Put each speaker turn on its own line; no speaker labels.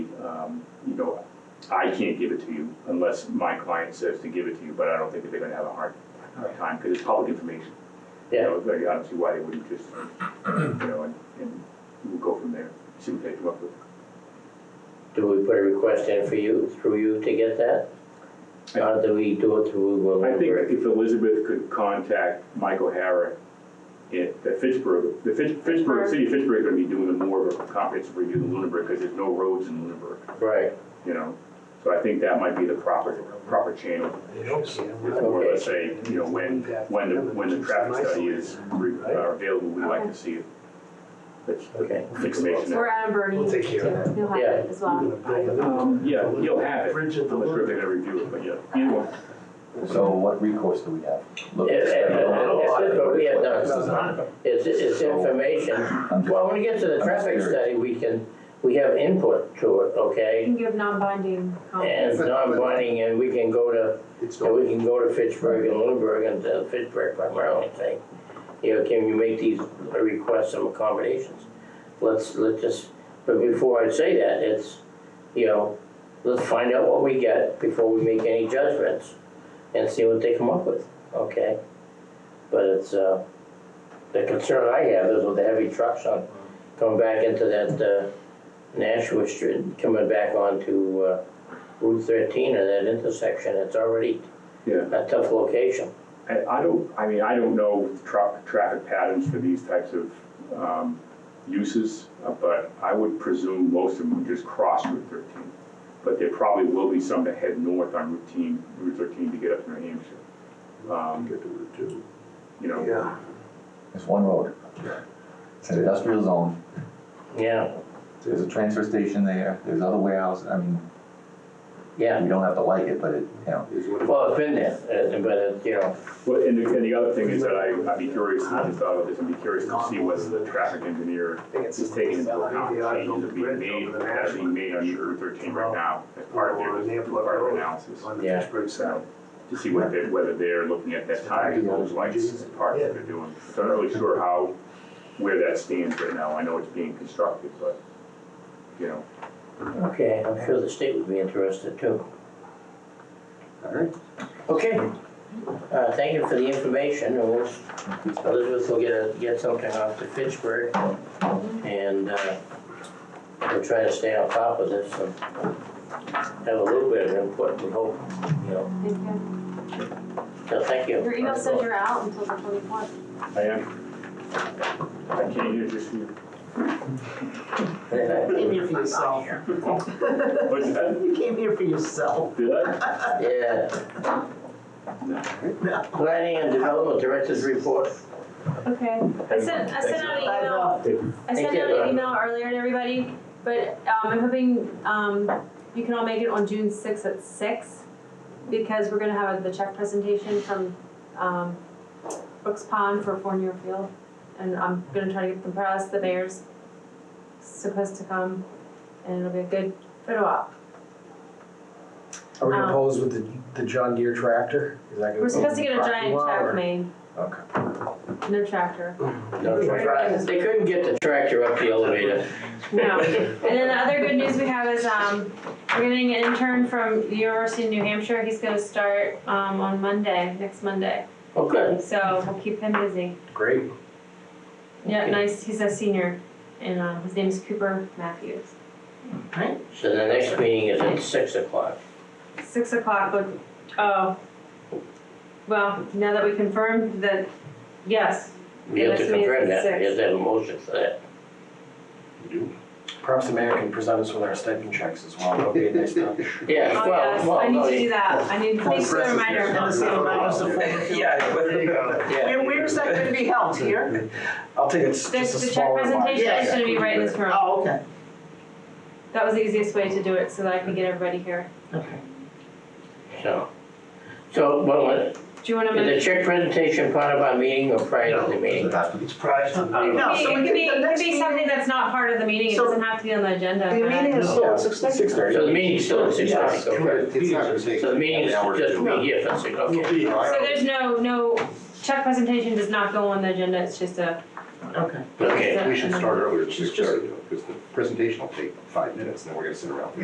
um, you know, I can't give it to you unless my client says to give it to you, but I don't think that they're gonna have a hard, hard time, because it's public information. You know, like, I don't see why they wouldn't just, you know, and, and we'll go from there, see what they come up with.
Do we put a request in for you, through you to get that? Or do we do it through uh,
I think
Will Woodbury?
if Elizabeth could contact Michael Harrah at the Fitchburg, the Fitch, Fitchburg, the city of Fitchburg is gonna be doing a more of a comprehensive review than Lunenburg, because there's no roads in Lunenburg,
Right,
you know? So I think that might be the proper, proper channel, is more or less say, you know, when, when the, when the traffic study is re- uh, available, we'd like to see it. That's
okay.
the information.
We're out of Bernie.
We'll take care of
You'll have it as well.
Um, yeah, you'll have it, I'm not
Bridge at the
sure if they're
loop.
gonna review it, but yeah, either one.
So what recourse do we have? Look,
It's, it's what we have done.
Well,
It's, it's information.
I'm just-
Well, when we get to the
I'm
traffic
curious.
study, we can, we have input to it,
You
okay?
can give non-binding
And
comments.
non-binding, and we can go to And we can go to Fitchburg and Lunenburg and uh, Fitchburg primarily, and say, you know, can you make these requests some accommodations? Let's, let's just, but before I say that, it's, you know, let's find out what we get before we make any judgments and see what they come up with, okay? But it's, uh, the concern I have is with the heavy trucks on, coming back into that, uh, Nashua Street, coming back onto, uh, Route thirteen and that intersection, it's already
Yeah.
a tough location.
I, I don't, I mean, I don't know tra- traffic patterns for these types of, um, uses, uh, but I would presume most of them would just cross Route thirteen. But there probably will be some that head north on Route 10 Route thirteen to get up to New Hampshire. Um, you know,
Yeah.
There's one road. It's an industrial zone,
Yeah,
there's a transfer station there, there's other warehouses, I mean,
yeah.
we don't have to like it, but it, you know.
Well, it's been there, uh, but it's, you know,
well, and the, and the other thing is that I, I'd be curious, I just thought of this, I'd be curious to see whether the traffic engineer
I think it's
is taking into account changes that being made, that are being made on Route thirteen right now as part of their, part of their analysis.
On the
Yeah.
Fitchburg side.
to see what they, whether they're looking at that time and those lights as part of what they're doing. So I'm not really sure how, where that stands right now. I know it's being constructed, but, you know,
okay, I'm sure the state would be interested too.
All right.
Okay, uh, thank you for the information, and we'll, Elizabeth will get a, get something off to Fitchburg. And, uh, we'll try to stay on top of this and have a little bit of input, we hope, you know,
Thank you.
so thank you.
Your email says you're out until the twenty-fourth.
I am. I can't hear just you.
Came here for yourself.
What's that?
You came here for yourself.
Did I?
Yeah. Planning and Development Director's report.
Okay, I sent, I sent out an
I
email,
know.
I sent
Thank you,
out
Laura.
an email earlier to everybody, but, um, I'm hoping, um, you can all make it on June sixth at six, because we're gonna have the check presentation from, um, Brooks Pond for Fournier Field, and I'm gonna try to get them pressed, the mayor's supposed to come, and it'll be a good photo op.
Are we
Um,
gonna pose with the, the John Deere tractor? Is that gonna
We're supposed to
be
get a
parking
giant
lot or-
track made,
Okay.
no tractor,
No tractor. They couldn't get the tractor up the elevator.
no. And then the other good news we have is, um, we're getting an intern from the University of New Hampshire, he's gonna start, um, on Monday, next Monday.
Oh, good.
So we'll keep him busy.
Great.
Yeah,
Okay.
nice, he's a senior, and, um, his name is Cooper Matthews.
So the next meeting is at six o'clock.
Six o'clock would, oh, well, now that we confirmed that, yes,
We have to
The next meeting is
confirm
at
that, we have
six.
to have a motion for that.
Perhaps the mayor can present us with our stipend checks as well. That'll be a nice touch.
Yeah,
oh, yes,
well, well,
I need
no,
to do
yeah.
that, I need, thanks for the reminder.
Yeah, but-
There you go.
Where, where is that gonna be held, here?
I'll take it's
The,
just
the
a
check
smaller one.
presentation
Yeah,
is gonna be right in this room.
Oh, okay,
That was the easiest way to do it, so that I can get everybody here.
okay.
So, so, well, uh,
Do you wanna
is the
make?
check presentation part of our meeting or prior to the
Does
meeting?
it have to be?
Surprise.
It
No, so
could be,
we
it could
get the
be, it could
next
be
meeting.
something that's not part of the meeting, it
So-
doesn't have to be on the agenda.
The
but I-
meeting is still at six thirty.
Six thirty.
So the meeting's still at six o'clock, okay?
It's not gonna take.
So the meeting is
an hour to
just
do.
be here for six, okay?
So there's no, no, check presentation does not go on the agenda, it's just a.
Okay.
Okay.
it's a-
We should
an
start earlier,
Just-
because the presentation will take five minutes, and then we're gonna sit around for